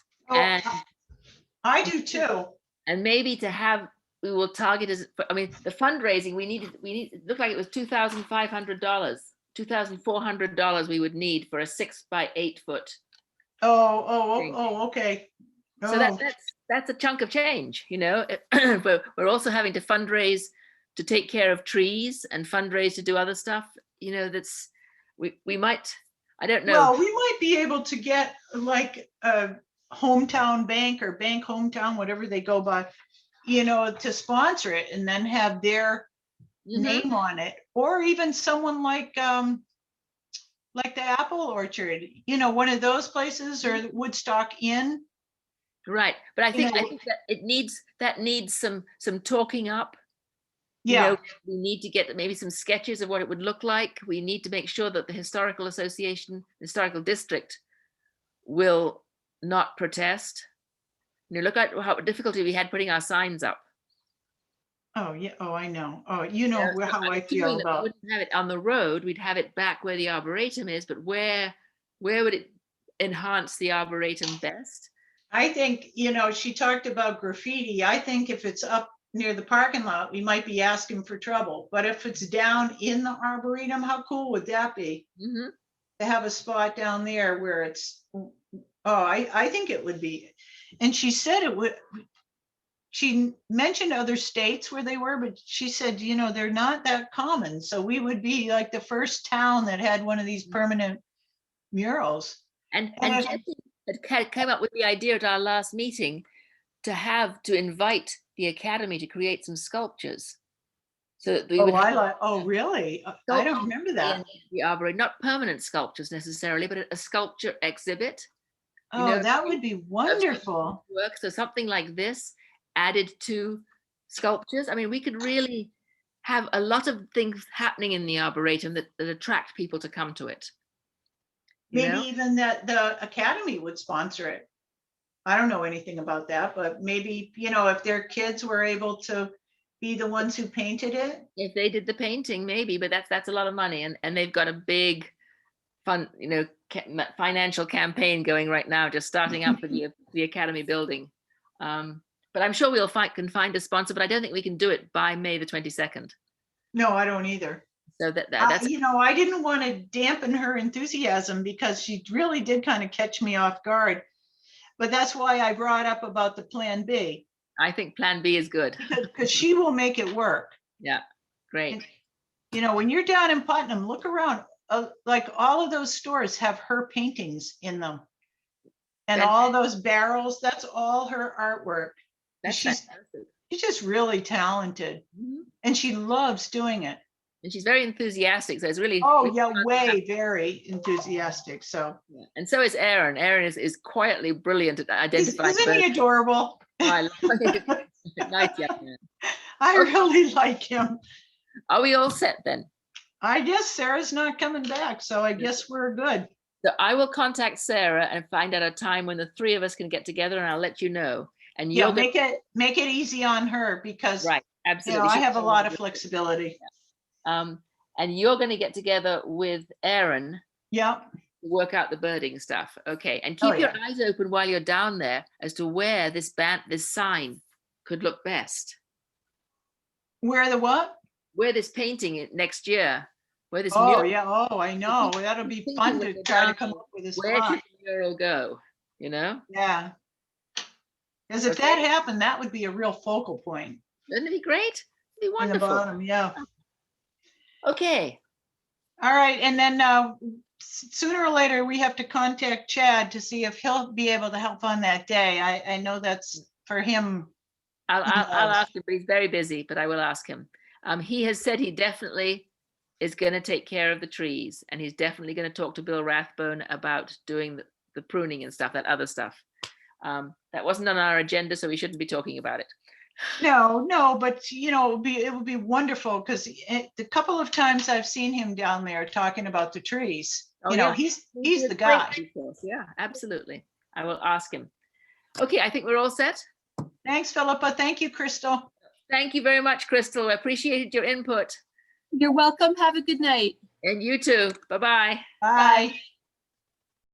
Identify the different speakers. Speaker 1: and
Speaker 2: Oh, I do too.
Speaker 1: and maybe to have, we will target as, but, I mean, the fundraising, we needed, we need, it looked like it was two thousand five hundred dollars. Two thousand four hundred dollars we would need for a six by eight foot.
Speaker 2: Oh, oh, oh,
Speaker 1: Thank
Speaker 2: oh, okay.
Speaker 1: So that,
Speaker 2: Oh,
Speaker 1: that's, that's a chunk of change, you know, but we're also having to fundraise to take care of trees and fundraise to do other stuff, you know, that's, we, we might, I don't know.
Speaker 2: Well, we might be able to get like a hometown bank or bank hometown, whatever they go by, you know, to sponsor it and then have their
Speaker 1: Mhm.
Speaker 2: name on it, or even someone like, um, like the Apple Orchard, you know, one of those places or
Speaker 1: Mm-hmm.
Speaker 2: Woodstock Inn.
Speaker 1: Right, but I
Speaker 2: you
Speaker 1: think, I
Speaker 2: know-
Speaker 1: think that it needs, that needs some, some talking up. you
Speaker 2: Yeah,
Speaker 1: know, We need to get maybe some sketches of what it would look like. We need to make sure that the historical association, historical district will not protest. You know, look at how difficulty we had putting our signs up.
Speaker 2: oh, yeah, oh, I know. Oh, you
Speaker 1: you
Speaker 2: know
Speaker 1: know,
Speaker 2: where-
Speaker 1: so
Speaker 2: how
Speaker 1: I'm
Speaker 2: I
Speaker 1: assuming
Speaker 2: feel
Speaker 1: that we
Speaker 2: about,
Speaker 1: wouldn't Have it on the road, we'd have it back where the arboretum is, but where, where would it enhance the arboretum best?
Speaker 2: I think, you know, she talked about graffiti. I think if it's up near the parking lot, we might be asking for trouble. But if it's down in the arboretum, how cool would that be?
Speaker 1: Mhm.
Speaker 2: to have a spot down there where it's, oh, I, I think it would be. And she said it would, she mentioned other states where they were, but she said, you know, they're not that common. So we would be like the first town that had one of these permanent murals.
Speaker 1: And,
Speaker 2: And
Speaker 1: and
Speaker 2: I-
Speaker 1: Jesse had ca- came up with the idea at our last meeting to have, to invite the academy to create some sculptures. So that we
Speaker 2: Oh,
Speaker 1: would
Speaker 2: I
Speaker 1: have
Speaker 2: like, oh, really? Uh, I don't remember that.
Speaker 1: in the arboretum, not permanent sculptures necessarily, but a- a sculpture exhibit you
Speaker 2: Oh,
Speaker 1: know,
Speaker 2: that would be wonderful.
Speaker 1: work. So something like this added to sculptures. I mean, we could really have a lot of things happening in the arboretum that, that attract people to come to it. you know?
Speaker 2: Maybe even that the academy would sponsor it. I don't know anything about that, but maybe, you know, if their kids were able to be the ones who painted it.
Speaker 1: if they did the painting maybe but that's that's a lot of money and and they've got a big fun you know ca- ma- financial campaign going right now just starting up for the the academy building um but i'm sure we'll find can find a sponsor but i don't think we can do it by may the 22nd
Speaker 2: No, I don't either.
Speaker 1: so that, that
Speaker 2: I-
Speaker 1: that's
Speaker 2: You know, I didn't want to dampen her enthusiasm because she really did kind of catch me off guard. But that's why I brought up about the plan B,
Speaker 1: i think plan b is good
Speaker 2: because she will make it work.
Speaker 1: great
Speaker 2: You know, when you're down in Putnam, look around, uh, like all of those stores have her paintings in them. And
Speaker 1: That's-
Speaker 2: all those barrels, that's all her artwork.
Speaker 1: that's
Speaker 2: she's-
Speaker 1: fantastic.
Speaker 2: She's just really talented
Speaker 1: Mhm.
Speaker 2: and she loves doing it.
Speaker 1: and she's very enthusiastic so it's really
Speaker 2: Oh,
Speaker 1: really
Speaker 2: yeah,
Speaker 1: fun to have
Speaker 2: way, very enthusiastic. So,
Speaker 1: her. and so is aaron aaron is, is quietly brilliant at
Speaker 2: Is-
Speaker 1: identifying
Speaker 2: isn't he
Speaker 1: birds.
Speaker 2: adorable?
Speaker 1: Oh, I love it. nice young man.
Speaker 2: I really like him.
Speaker 1: Are we all set then?
Speaker 2: I guess Sarah's not coming back, so I guess we're good.
Speaker 1: So I will contact Sarah and find out a time when the three of us can get together and I'll let you know. And
Speaker 2: Yeah,
Speaker 1: you'll
Speaker 2: make it, make it easy on her because,
Speaker 1: right,
Speaker 2: you
Speaker 1: absolutely.
Speaker 2: know, I
Speaker 1: she's
Speaker 2: have a
Speaker 1: all
Speaker 2: lot
Speaker 1: over
Speaker 2: of
Speaker 1: it.
Speaker 2: flexibility.
Speaker 1: Um, and you're gonna get together with Aaron
Speaker 2: Yep.
Speaker 1: to work out the birding stuff. Okay, and
Speaker 2: Oh,
Speaker 1: keep your eyes open while you're down there as to where this ban, this sign could look best.
Speaker 2: Where the what?
Speaker 1: Where this painting i- next year, where this
Speaker 2: Oh,
Speaker 1: mural,
Speaker 2: yeah, oh, I know. That'll be
Speaker 1: thinking
Speaker 2: fun
Speaker 1: when
Speaker 2: to
Speaker 1: you're
Speaker 2: try to
Speaker 1: down
Speaker 2: come
Speaker 1: there,
Speaker 2: up with a
Speaker 1: where
Speaker 2: spot.
Speaker 1: should the mural go, you know?
Speaker 2: Yeah. Because if
Speaker 1: Okay.
Speaker 2: that happened, that would be a real focal point
Speaker 1: Wouldn't it be great? It'd be
Speaker 2: in the
Speaker 1: wonderful.
Speaker 2: bottom, yeah.
Speaker 1: Okay,
Speaker 2: All right, and then uh, s- sooner or later, we have to contact Chad to see if he'll be able to help on that day. I, I know that's for him.
Speaker 1: I'll,
Speaker 2: He
Speaker 1: I'll, I'll
Speaker 2: does.
Speaker 1: ask him, but he's very busy, but I will ask him. Um, he has said he definitely is going to take care of the trees and he's definitely going to talk to Bill Rathbone about doing the, the pruning and stuff, that other stuff. Um, that wasn't on our agenda, so we shouldn't be talking about it.
Speaker 2: No, no, but you know, it would be, it would be wonderful, because the couple of times I've seen him down there talking about the trees,
Speaker 1: Oh,
Speaker 2: you know,
Speaker 1: yeah.
Speaker 2: he's,
Speaker 1: He'd
Speaker 2: he's
Speaker 1: be a
Speaker 2: the
Speaker 1: great
Speaker 2: guy.
Speaker 1: resource, Yeah, absolutely. I will ask him. Okay, I think we're all set.
Speaker 2: Thanks, Philippa. Thank you, Crystal.
Speaker 1: Thank you very much, Crystal. I appreciated your input.
Speaker 3: You're welcome. Have a good night.
Speaker 1: And you too. Bye bye.
Speaker 2: Bye.